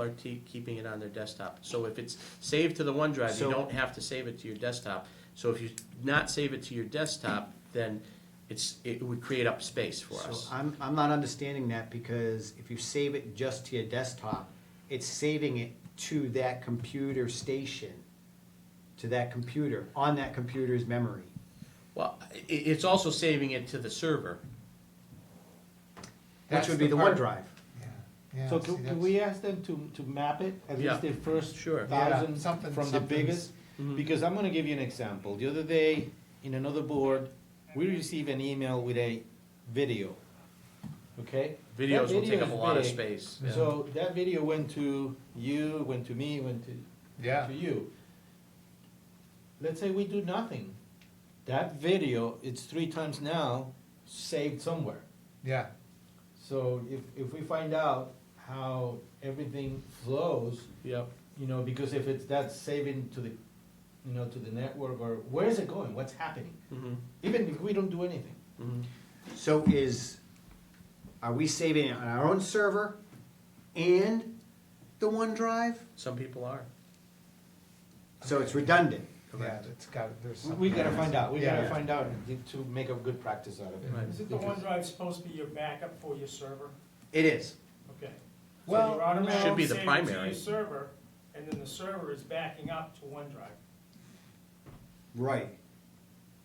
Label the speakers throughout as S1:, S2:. S1: are te- keeping it on their desktop. So if it's saved to the OneDrive, you
S2: So-
S1: don't have to save it to your desktop. So if you not save it to your desktop, then it's, it would create up space for
S2: So
S1: us.
S2: I'm, I'm not understanding that because if you save it just to your desktop, it's saving it to that computer station, to that computer, on that computer's memory.
S1: Well, i it's also saving it to the server.
S2: Which
S3: That's
S2: would be the
S3: the part-
S2: OneDrive.
S3: Yeah, yeah.
S4: So
S3: see,
S4: can, can
S3: that's-
S4: we ask them to, to map it, at
S1: Yeah.
S4: least the first
S1: Sure. Mm-hmm.
S3: Yeah,
S4: thousand
S3: something-
S4: from the
S3: something's-
S4: biggest? Because I'm gonna give you an example, the other day, in another board, we received an email with a video, okay? That
S1: Videos will take
S4: video
S1: up
S4: is
S1: a lot of
S4: big.
S1: space. yeah.
S4: So that video went to you, went to me, went to
S3: Yeah,
S4: to you. Let's say we do nothing. That video, it's three times now, saved somewhere.
S3: yeah,
S4: So if, if we find out how everything flows,
S1: Yep,
S4: you know, because if it's that's saving to the, you know, to the network or where is it going? What's happening?
S1: mhm,
S4: Even if we don't do anything.
S1: mhm.
S2: So is, are we saving it on our own server and the OneDrive?
S1: Some people are.
S2: So it's redundant.
S3: yeah,
S1: Correct.
S3: it's got, there's
S4: We, we
S3: something
S4: gotta
S3: else.
S4: find out. We
S3: Yeah.
S4: gotta find out to make a good practice out of it.
S1: Right.
S5: Is it the OneDrive supposed to be your backup for your server?
S2: It is.
S5: Okay. So
S3: Well,
S5: you're automatically
S1: Should be the
S5: saving it
S1: primary.
S5: to your server, and then the server is backing up to OneDrive.
S2: Right.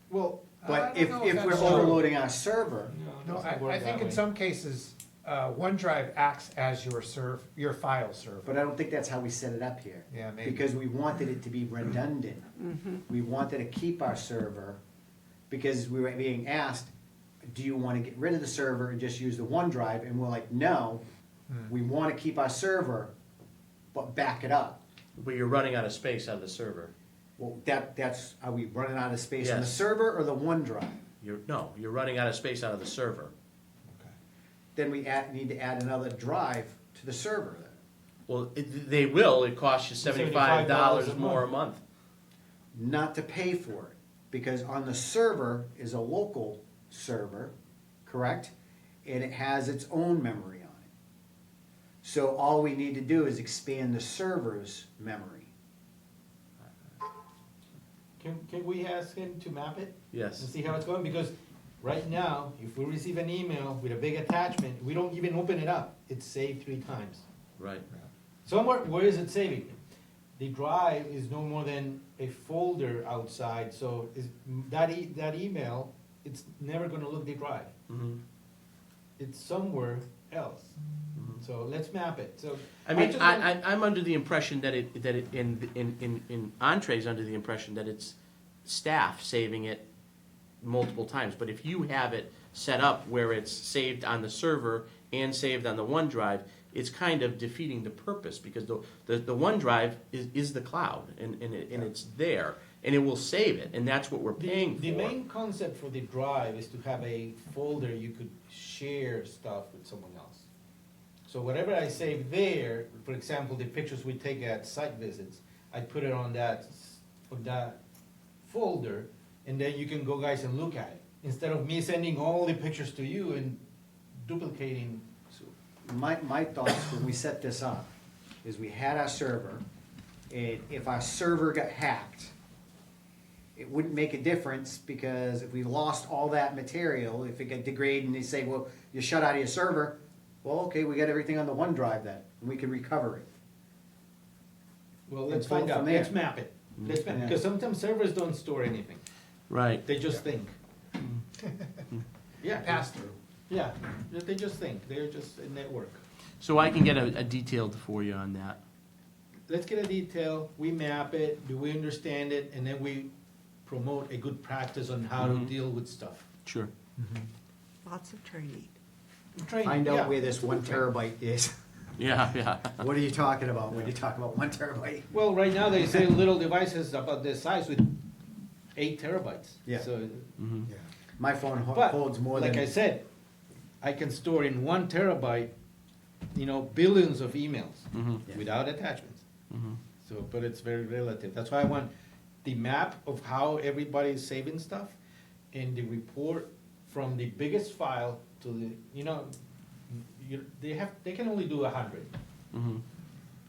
S4: Well,
S3: I
S2: But
S3: don't
S2: if,
S3: know
S2: if
S3: that's
S2: we're
S3: true.
S2: overloading our server,
S3: No,
S4: doesn't work
S3: I, I
S4: that
S3: think in
S4: way.
S3: some cases, uh, OneDrive acts as your serve, your file
S2: but
S3: server.
S2: I don't think that's how we set it up here.
S3: Yeah, maybe,
S2: because we wanted it to be redundant. We wanted to keep our server, because we were being asked, do you wanna get rid of the server and just use the OneDrive? And we're like, no,
S3: Hmm.
S2: we wanna keep our server, but back it up.
S1: But you're running out of space on the server.
S2: Well, that, that's, are we running out of space on the
S1: Yes.
S2: server or the OneDrive?
S1: You're, no, you're running out of space out of the server.
S2: Then we add, need to add another drive to the server then.
S1: Well, it, they will, it costs you seventy-five
S4: $75
S1: dollars
S4: a
S1: more a month.
S2: not to pay for it, because on the server is a local server, correct? And it has its own memory on it. So all we need to do is expand the server's memory.
S4: can, can we ask him to map it? and
S1: Yes,
S4: see how it's going, because right now, if we receive an email with a big attachment, we don't even open it up, it's saved three times.
S1: right.
S4: Somewhere, where is it saving? The drive is no more than a folder outside, so is, that e, that email, it's never gonna look the drive,
S1: Mm-hmm.
S4: it's somewhere else. So let's map it, so.
S1: Mm-hmm. I mean,
S4: just
S1: I,
S4: want-
S1: I, I'm under the impression that it, that it, in, in, in, in Entree's under the impression that it's staff saving it multiple times, but if you have it set up where it's saved on the server and saved on the OneDrive, it's kind of defeating the purpose, because the, the, the OneDrive is, is the cloud, and, and it, and it's there, and it will save it, and that's what we're
S4: The-
S1: paying for.
S4: The main concept for the drive is to have a folder you could share stuff with someone else. So whatever I save there, for example, the pictures we take at site visits, I put it on that, s- on that folder, and then you can go guys and look at it, instead of me sending all the pictures to you and duplicating.
S2: So My, my thoughts when we set this up is we had our server, and if our server got hacked, it wouldn't make a difference because if we lost all that material, if it got degraded and they say, well, you shut out of your server, well, okay, we got everything on the OneDrive then, and we can recover it.
S4: Well,
S2: let's
S4: let's
S2: pull
S4: find
S2: from
S4: out,
S2: there. Mm-hmm.
S4: let's map it, let's map,
S2: Yeah.
S4: because sometimes servers don't store anything,
S1: Right.
S4: they just think. Yeah.
S3: pass through.
S4: Yeah, they- they just think, they're just a network.
S1: So I can get a, a detailed for you on that.
S4: Let's get a detail, we map it, do we understand it, and then we promote a good practice on how to
S2: Mm-hmm.
S1: Mhm.
S4: deal with stuff.
S1: Sure.
S6: Lots of training.
S4: Training,
S2: Find out
S4: yeah.
S2: where this one terabyte is.
S1: Yeah, yeah.
S2: What are you talking about when you talk about one terabyte?
S4: Well, right now, they say little devices about this size with eight terabytes.
S2: Yeah.
S4: So,
S1: Mhm.
S2: My phone ho-
S4: but,
S2: holds more
S4: like I
S2: than,
S4: said, I can store in one terabyte, you know, billions of emails
S1: Mhm.
S2: Yeah.
S4: without attachments.
S1: Mhm.
S4: So, but it's very relative. That's why I want the map of how everybody is saving stuff and the report from the biggest file to the, you know, you, they have, they can only do a hundred.
S1: Mhm.